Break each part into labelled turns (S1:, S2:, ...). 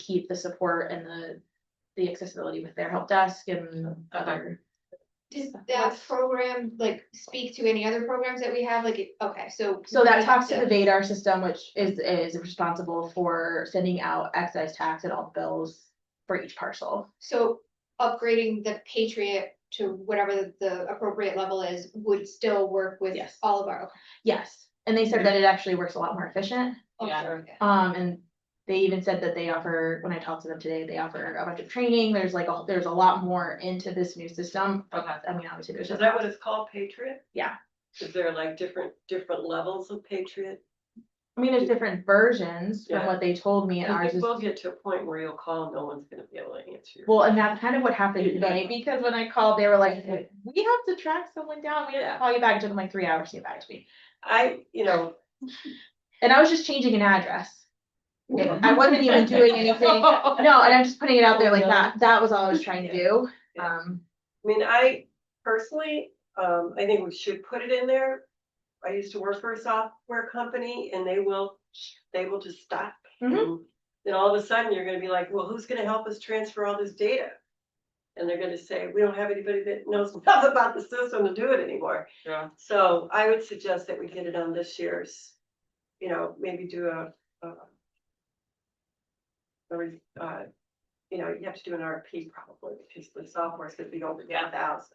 S1: keep the support and the, the accessibility with their help desk and other.
S2: Does
S1: Of
S2: that
S1: course.
S2: program like speak to any other programs that we have? Like, it- okay, so.
S1: So
S2: we
S1: that talks to
S2: have
S1: the Vadar system, which is, is responsible for sending out excise tax and all bills for each parcel.
S2: So upgrading the Patriot to whatever the- the appropriate level is would still work with
S1: Yes.
S2: all of our.
S1: Yes, and they said that it actually works a lot more efficient.
S2: oh,
S3: Yeah.
S2: sure, okay.
S1: Um, and they even said that they offer, when I talked to them today, they offer a bunch of training. There's like, a there's a lot more into this new system.
S3: Okay.
S1: I mean, obviously, there's
S4: Is
S1: just.
S4: that what it's called, Patriot?
S1: Yeah.
S4: Is there like different, different levels of Patriot?
S1: I mean, there's different versions from
S4: Yeah.
S1: what they told me and
S4: I
S1: ours
S4: think
S1: is,
S4: we'll get to a point where you'll call, and no one's gonna be able to answer. your-
S1: well, and that's kind of what happened today, because when I called, they were like, we have to track someone down, we have to
S4: Yeah.
S1: call you back, it took them like three hours to get back to me.
S4: I, you know,
S1: And I was just changing an address, I wasn't even doing anything, no, and I'm just putting it out there like that, that was all I was trying to do.
S4: Yeah.
S1: Um,
S4: I mean, I personally, um, I think we should put it in there. I used to work for a software company and they will, they will just stop.
S1: Mhm.
S4: And Then all of a sudden, you're gonna be like, well, who's gonna help us transfer all this data? And they're gonna say, we don't have anybody that knows enough about the system to do it anymore.
S3: Yeah.
S4: So I would suggest that we get it on this year's, you know, maybe do a, uh. a re- uh, you know, you have to do an RFP probably, because the software's gonna be over
S3: Yeah.
S4: one thousand.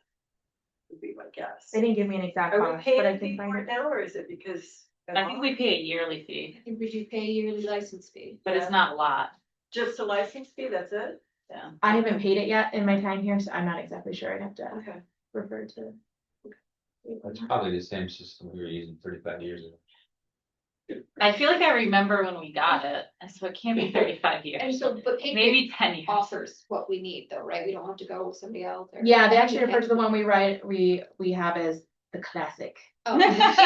S4: Would be my guess.
S1: they didn't give me an exact
S4: Are we
S1: cost, but
S4: paying
S1: I
S4: a fee
S1: think. I-
S4: for it now, or is it because?
S3: I think we pay a yearly fee,
S2: I think we should pay yearly license fee.
S3: but it's not a lot,
S4: Just a license fee, that's it?
S3: yeah.
S1: I haven't paid it yet in my time here, so I'm not exactly sure. I'd have to
S4: Okay.
S1: refer to.
S5: It's probably the same system we were using thirty-five years ago.
S3: I feel like I remember when we got it, and so it can't be thirty-five
S2: And
S3: years,
S2: so, but Patriot
S3: maybe ten years.
S2: offers what we need though, right? We don't have to go with somebody else or.
S1: Yeah, they actually refer to the one we write, we, we have as the classic.
S2: Oh.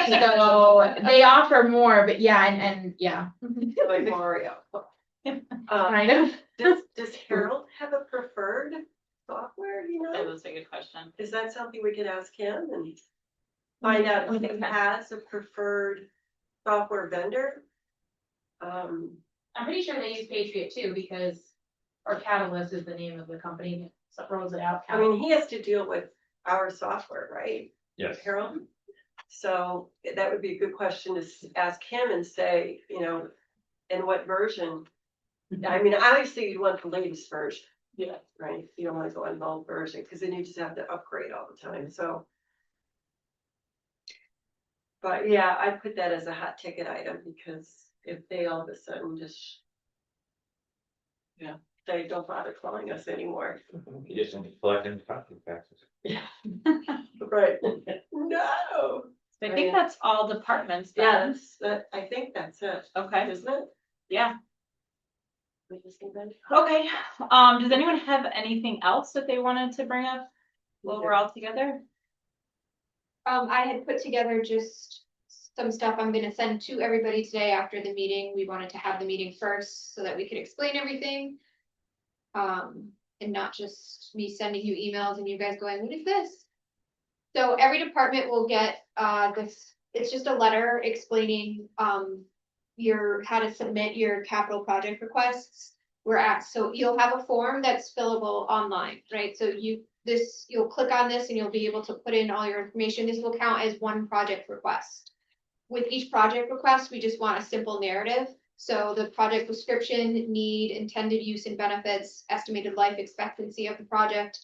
S1: So they offer more, but yeah, and, and yeah,
S4: Like Mario. Uh,
S1: kind of.
S4: does, does Harold have a preferred software, you
S3: That
S4: know?
S3: was a good question.
S4: Is that something we could ask him and find out if he has a preferred software vendor? Um,
S1: I'm pretty sure they use Patriot too, because, or Catalyst is the name of the company that rolls it out.
S4: I mean, he has to deal with our software, right?
S5: Yes.
S4: Harold? So that would be a good question to s- ask him and say, you know, in what version? I mean, obviously you'd want the latest version.
S3: Yeah.
S4: Right, you don't wanna go on the old version, cause then you just have to upgrade all the time, so. But yeah, I put that as a hot ticket item, because if they all of a sudden just.
S3: Yeah.
S4: They don't bother calling us anymore.
S5: You just don't collect any property taxes.
S4: Right. No.
S3: So I think that's all departments. then.
S4: Yeah, that's, that, I think that's it,
S3: Okay,
S4: isn't it?
S3: yeah,
S4: We just need that?
S3: okay, um, does anyone have anything else that they wanted to bring up while we're all together?
S2: Um, I had put together just some stuff I'm gonna send to everybody today after the meeting. We wanted to have the meeting first so that we could explain everything. Um, and not just me sending you emails and you guys going, what is this? So every department will get, uh, this, it's just a letter explaining, um, your, how to submit your capital project requests. We're at, so you'll have a form that's fillable online, right? So you, this, you'll click on this and you'll be able to put in all your information. This will count as one project request. With each project request, we just want a simple narrative. So the project description, need, intended use and benefits, estimated life expectancy of the project,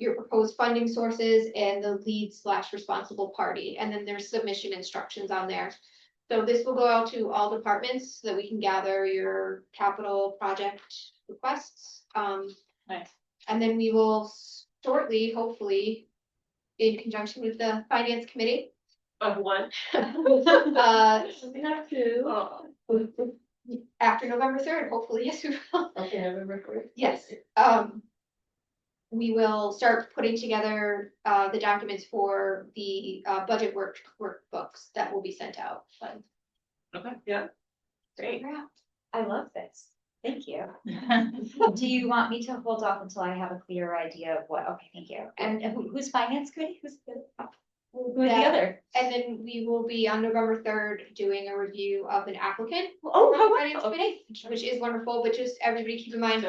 S2: your proposed funding sources, and the lead slash responsible party. And then there's submission instructions on there. So this will go out to all departments so that we can gather your capital project requests. Um,
S3: Nice.
S2: and then we will shortly, hopefully, in conjunction with the finance committee,
S4: Of one.
S2: uh,
S1: Not too.
S4: Oh.
S2: after November third, hopefully, yes, we will.
S4: Okay, I remember correctly.
S2: Yes, um, we will start putting together, uh, the documents for the, uh, budget work, workbooks that will be sent out. but-
S3: Okay.
S4: Yeah.
S3: Great.
S6: I love this. Thank you. Do you want me to hold off until I have a clearer idea of what? Okay, thank you. And who- who's finance committee? Who's the? Who was the
S2: Yeah.
S6: other?
S2: And then we will be on November third doing a review of an applicant.
S6: Oh,
S2: from
S6: how
S2: Finance
S6: wonderful.
S2: Committee, Which is wonderful, but just everybody keep in mind,